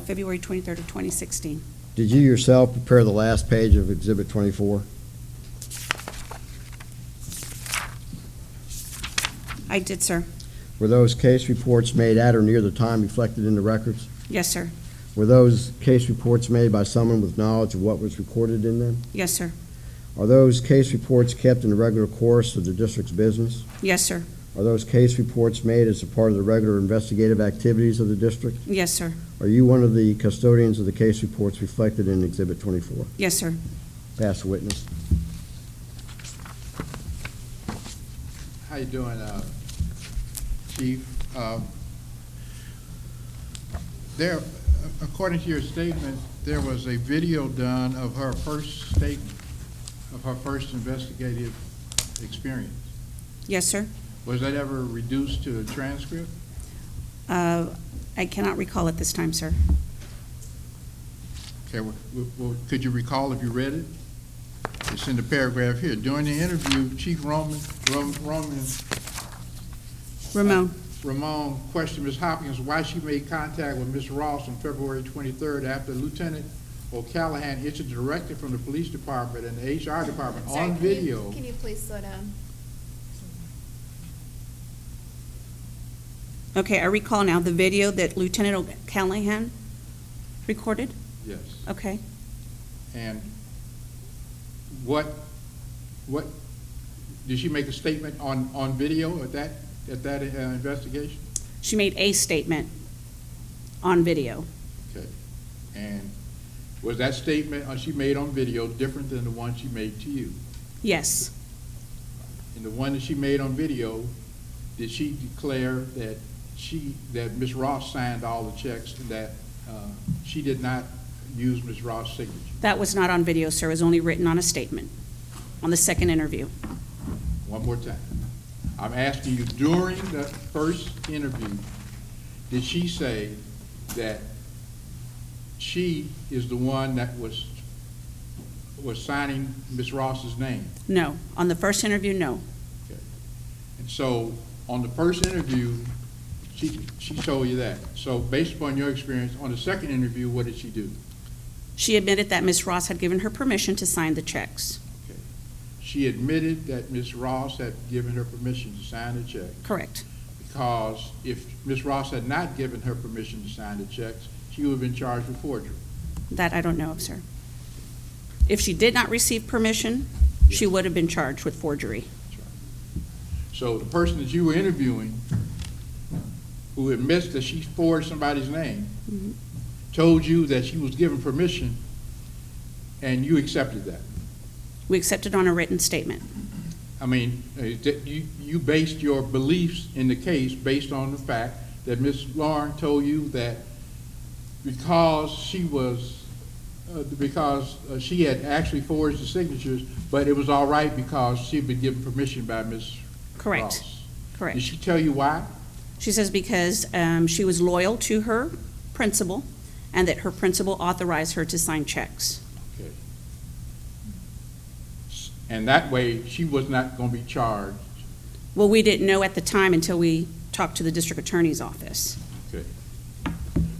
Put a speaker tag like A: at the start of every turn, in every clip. A: February 23rd of 2016.
B: Did you yourself prepare the last page of Exhibit 24?
A: I did, sir.
B: Were those case reports made at or near the time reflected in the records?
A: Yes, sir.
B: Were those case reports made by someone with knowledge of what was recorded in them?
A: Yes, sir.
B: Are those case reports kept in the regular course of the district's business?
A: Yes, sir.
B: Are those case reports made as a part of the regular investigative activities of the district?
A: Yes, sir.
B: Are you one of the custodians of the case reports reflected in Exhibit 24?
A: Yes, sir.
B: Pass the witness.
C: How you doing, uh, Chief? Um, There, according to your statement, there was a video done of her first statement, of her first investigative experience.
A: Yes, sir.
C: Was that ever reduced to a transcript?
A: Uh, I cannot recall at this time, sir.
C: Okay, well, well, could you recall if you read it? It's in the paragraph here. During the interview, Chief Roman, Rom- Roman
A: Ramon,
C: Ramon questioned Ms. Hopkins why she made contact with Ms. Ross on February 23rd after Lieutenant O'Callahan issued a directive from the police department and the HR department
D: Sorry,
C: on
D: can you-
C: video.
D: Can you please slow down?
A: okay, I recall now the video that Lieutenant O'Callahan recorded?
C: Yes.
D: Oh.
A: Okay.
C: And what, what, did she make a statement on, on video at that, at that uh, investigation?
A: She made a statement on video.
C: Okay. And was that statement uh, she made on video different than the one she made to you?
A: Yes.
C: And the one that she made on video, did she declare that she, that Ms. Ross signed all the checks and that uh, she did not use Ms. Ross' signature?
A: That was not on video, sir. It was only written on a statement on the second interview.
C: One more time. I'm asking you, during the first interview, did she say that she is the one that was, was signing Ms. Ross's name?
A: No. On the first interview, no.
C: Okay. And so, on the first interview, she, she told you that. So based upon your experience, on the second interview, what did she do?
A: She admitted that Ms. Ross had given her permission to sign the checks.
C: Okay. She admitted that Ms. Ross had given her permission to sign the check,
A: Correct.
C: because if Ms. Ross had not given her permission to sign the checks, she would have been charged with forgery.
A: That I don't know of, sir. If she did not receive permission, she would have been charged with forgery.
C: So the person that you were interviewing, who admits that she forged somebody's name, told you that she was given permission, and you accepted that.
A: We accepted on a written statement.
C: I mean, uh, that you, you based your beliefs in the case based on the fact that Ms. Lauren told you that because she was, uh, because uh, she had actually forged the signatures, but it was all right because she'd been given permission by Ms.
A: Correct.
C: Ross. Did
A: Correct.
C: she tell you why?
A: She says because um, she was loyal to her principal and that her principal authorized her to sign checks.
C: Okay. S- And that way, she was not going to be charged.
A: Well, we didn't know at the time until we talked to the district attorney's office.
C: Okay.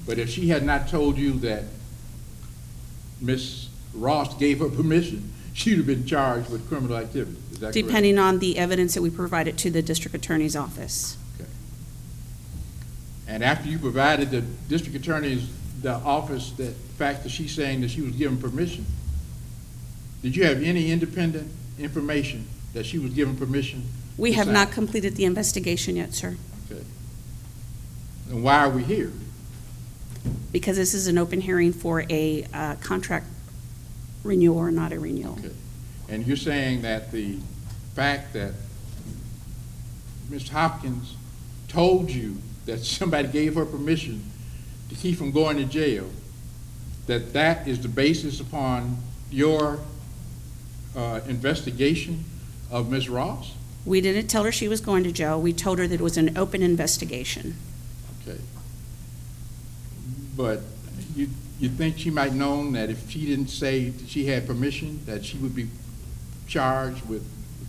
C: But if she had not told you that Ms. Ross gave her permission, she'd have been charged with criminal activity. Is that correct?
A: depending on the evidence that we provided to the district attorney's office.
C: Okay. And after you provided the district attorney's, the office, the fact that she's saying that she was given permission, did you have any independent information that she was given permission?
A: We
C: to
A: have
C: sign?
A: not completed the investigation yet, sir,
C: Okay. Then why are we here?
A: because this is an open hearing for a uh, contract renewal or not a renewal.
C: Okay. And you're saying that the fact that Ms. Hopkins told you that somebody gave her permission to keep from going to jail, that that is the basis upon your uh, investigation of Ms. Ross?
A: We didn't tell her she was going to jail. We told her that it was an open investigation.
C: Okay. But you, you think she might known that if she didn't say that she had permission, that she would be charged with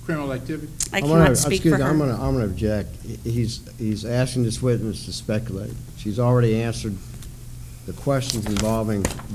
C: criminal activity?
A: I
B: I'm gonna-
A: cannot speak
B: excuse
A: for
B: me, I'm gonna,
A: her.
B: I'm gonna object. He- He's, he's asking this witness to speculate. She's already answered the questions involving